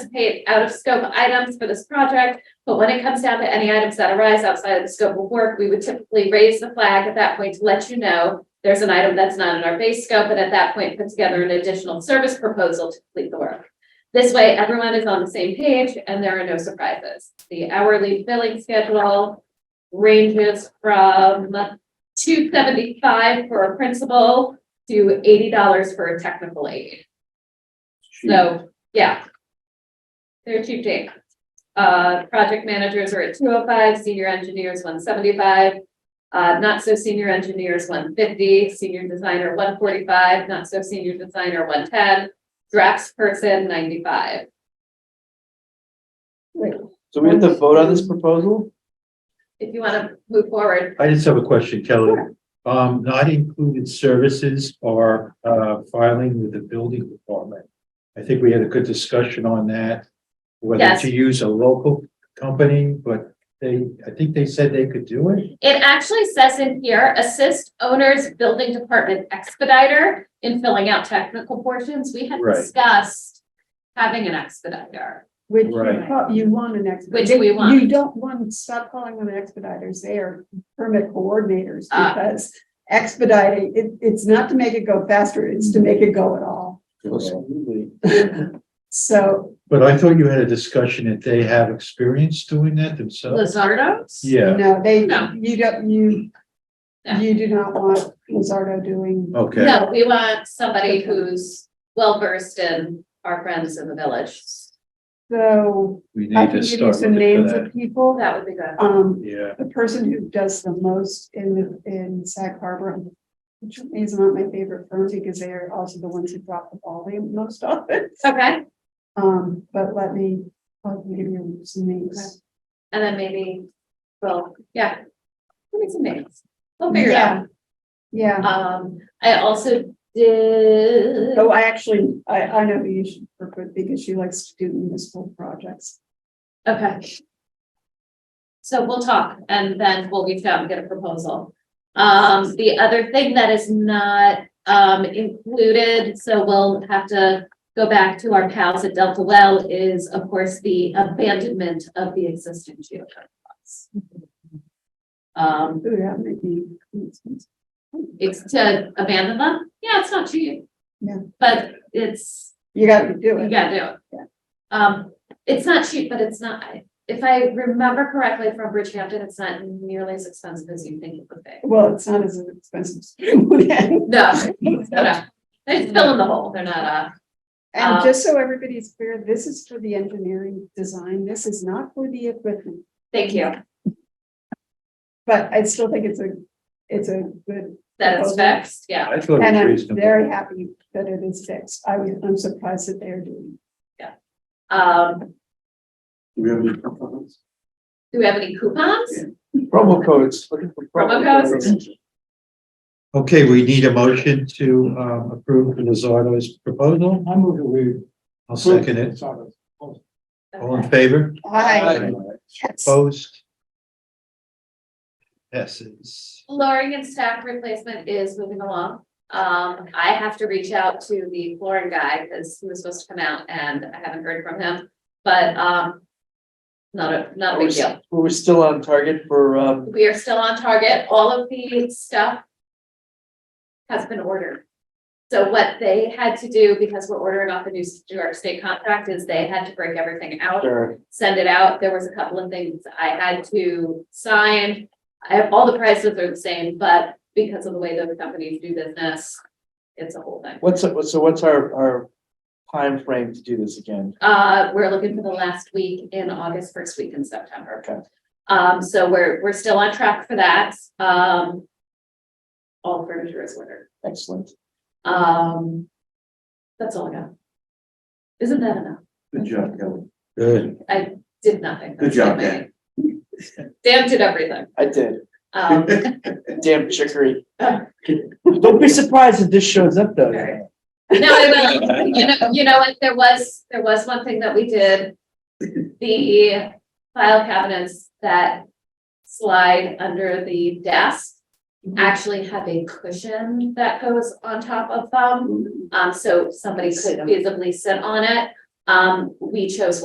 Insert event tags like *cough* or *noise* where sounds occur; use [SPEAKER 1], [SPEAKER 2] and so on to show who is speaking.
[SPEAKER 1] anticipate out of scope items for this project. But when it comes down to any items that arise outside of the scope of work, we would typically raise the flag at that point to let you know. There's an item that's not in our base scope, and at that point, put together an additional service proposal to complete the work. This way, everyone is on the same page and there are no surprises. The hourly billing schedule ranges from two seventy-five for a principal to eighty dollars for a technical aid. So, yeah. They're cheap date. Uh, project managers are at two oh five, senior engineers one seventy-five. Uh, not so senior engineers one fifty, senior designer one forty-five, not so senior designer one ten, drafts person ninety-five.
[SPEAKER 2] So we have to vote on this proposal?
[SPEAKER 1] If you wanna move forward,
[SPEAKER 3] I just have a question, Kelly. Um, not included services are, uh, filing with the building department. I think we had a good discussion on that, whether
[SPEAKER 1] Yes.
[SPEAKER 3] to use a local company, but they, I think they said they could do it.
[SPEAKER 1] It actually says in here, assist owners, building department expediter in filling out technical portions. We had
[SPEAKER 3] Right.
[SPEAKER 1] discussed having an expediter.
[SPEAKER 4] Which you
[SPEAKER 3] Right.
[SPEAKER 4] prob- you want an expediter.
[SPEAKER 1] Which we want.
[SPEAKER 4] You don't want, stop calling them expediters, they are permit coordinators
[SPEAKER 1] Ah.
[SPEAKER 4] because expediting, it, it's not to make it go faster, it's to make it go at all.
[SPEAKER 2] Absolutely.
[SPEAKER 4] So,
[SPEAKER 3] But I thought you had a discussion that they have experience doing that themselves.
[SPEAKER 1] Lizardos?
[SPEAKER 3] Yeah,
[SPEAKER 4] no, they,
[SPEAKER 1] No.
[SPEAKER 4] you don't, you,
[SPEAKER 1] No.
[SPEAKER 4] you do not want Lizardo doing.
[SPEAKER 3] okay.
[SPEAKER 1] No, we want somebody who's well versed in our friends in the village.
[SPEAKER 4] So
[SPEAKER 3] We
[SPEAKER 4] I
[SPEAKER 3] need
[SPEAKER 4] can
[SPEAKER 3] to
[SPEAKER 4] give you
[SPEAKER 3] start
[SPEAKER 4] some
[SPEAKER 3] looking
[SPEAKER 4] names
[SPEAKER 3] for
[SPEAKER 4] of
[SPEAKER 3] that.
[SPEAKER 4] people.
[SPEAKER 1] Oh, That would be good.
[SPEAKER 4] Um,
[SPEAKER 3] Yeah,
[SPEAKER 4] the person who does the most in, the in Sag Harbor, which is not my favorite firm because they are also the ones who drop the ball the most often.
[SPEAKER 1] Okay,
[SPEAKER 4] Um, but let me, I'll give you some names.
[SPEAKER 1] and then maybe, well, yeah. Give me some names. We'll figure it out.
[SPEAKER 4] Yeah,
[SPEAKER 1] Um, I also did.
[SPEAKER 4] oh, I actually, I, I know who you should work with because she likes to do municipal projects.
[SPEAKER 1] Okay. So we'll talk and then we'll reach out and get a proposal. Um, the other thing that is not, um, included, so we'll have to go back to our pals at Delta Well is, of course, the abandonment of the existing geothermal pots. Um,
[SPEAKER 4] Ooh, that might be.
[SPEAKER 1] it's to abandon them, yeah, it's not cheap.
[SPEAKER 4] Yeah.
[SPEAKER 1] But it's
[SPEAKER 4] You gotta do
[SPEAKER 1] you
[SPEAKER 4] it.
[SPEAKER 1] gotta do it.
[SPEAKER 4] Yeah.
[SPEAKER 1] Um, it's not cheap, but it's not, I- if I remember correctly from Bridgehampton, it's not nearly as expensive as you think it would be.
[SPEAKER 4] Well, it's not as expensive.
[SPEAKER 1] *laughs*
[SPEAKER 4] as-
[SPEAKER 1] No, no, no. They're still in the hole, they're not, uh,
[SPEAKER 4] And just so everybody's clear, this is for the engineering design. This is not for the equipment.
[SPEAKER 1] thank you,
[SPEAKER 4] But I still think it's a, it's a good,
[SPEAKER 1] that is fixed, yeah.
[SPEAKER 3] I thought
[SPEAKER 4] and
[SPEAKER 3] it was
[SPEAKER 4] I'm
[SPEAKER 3] reasonable.
[SPEAKER 4] very happy that it is fixed. I was, I'm surprised that they're doing.
[SPEAKER 1] Um,
[SPEAKER 2] Do we have any comments?
[SPEAKER 1] do we have any coupons?
[SPEAKER 2] Yeah. Promo codes. looking for
[SPEAKER 1] Promo codes.
[SPEAKER 3] Okay, we need a motion to um approve Lizardo's proposal.
[SPEAKER 2] I move that we.
[SPEAKER 3] I'll second it. All in favor?
[SPEAKER 4] Hi. Yes.
[SPEAKER 3] Opposed? Passes.
[SPEAKER 1] Flooring and stack replacement is moving along. Um, I have to reach out to the flooring guy because he was supposed to come out and I haven't heard from him, but, um, not a, not a big deal.
[SPEAKER 2] We're still on target for, um,
[SPEAKER 1] We are still on target. All of the stuff has been ordered. So what they had to do, because we're ordering off a new New York State contract, is they had to break everything out,
[SPEAKER 2] our-
[SPEAKER 1] send it out. There was a couple of things I had to sign. I have, all the prices are the same, but because of the way those companies do business, it's a whole thing.
[SPEAKER 2] what's, so what's our, our frame to do this again?
[SPEAKER 1] Uh, we're looking for the last week in August, first week in September.
[SPEAKER 2] Okay.
[SPEAKER 1] Um, so we're, we're still on track for that. Um. All furniture is ordered.
[SPEAKER 2] Excellent.
[SPEAKER 1] Um. That's all I got. Isn't that enough?
[SPEAKER 2] Good job, Kelly.
[SPEAKER 3] Good.
[SPEAKER 1] Did nothing.
[SPEAKER 2] Good
[SPEAKER 1] *laughs*
[SPEAKER 2] job, Dan.
[SPEAKER 1] Dan did everything.
[SPEAKER 2] I did. *laughs*
[SPEAKER 1] Um, *laughs*
[SPEAKER 2] Damn chicory. Don't be surprised if this shows up though.
[SPEAKER 1] Right. no, I will. You know, you know, what? there was, there was one thing that we did. The file cabinets that slide under the desk. actually have a cushion that goes on top
[SPEAKER 2] Mm-hmm.
[SPEAKER 1] of them. Um, so somebody could visibly sit on it. Um, we chose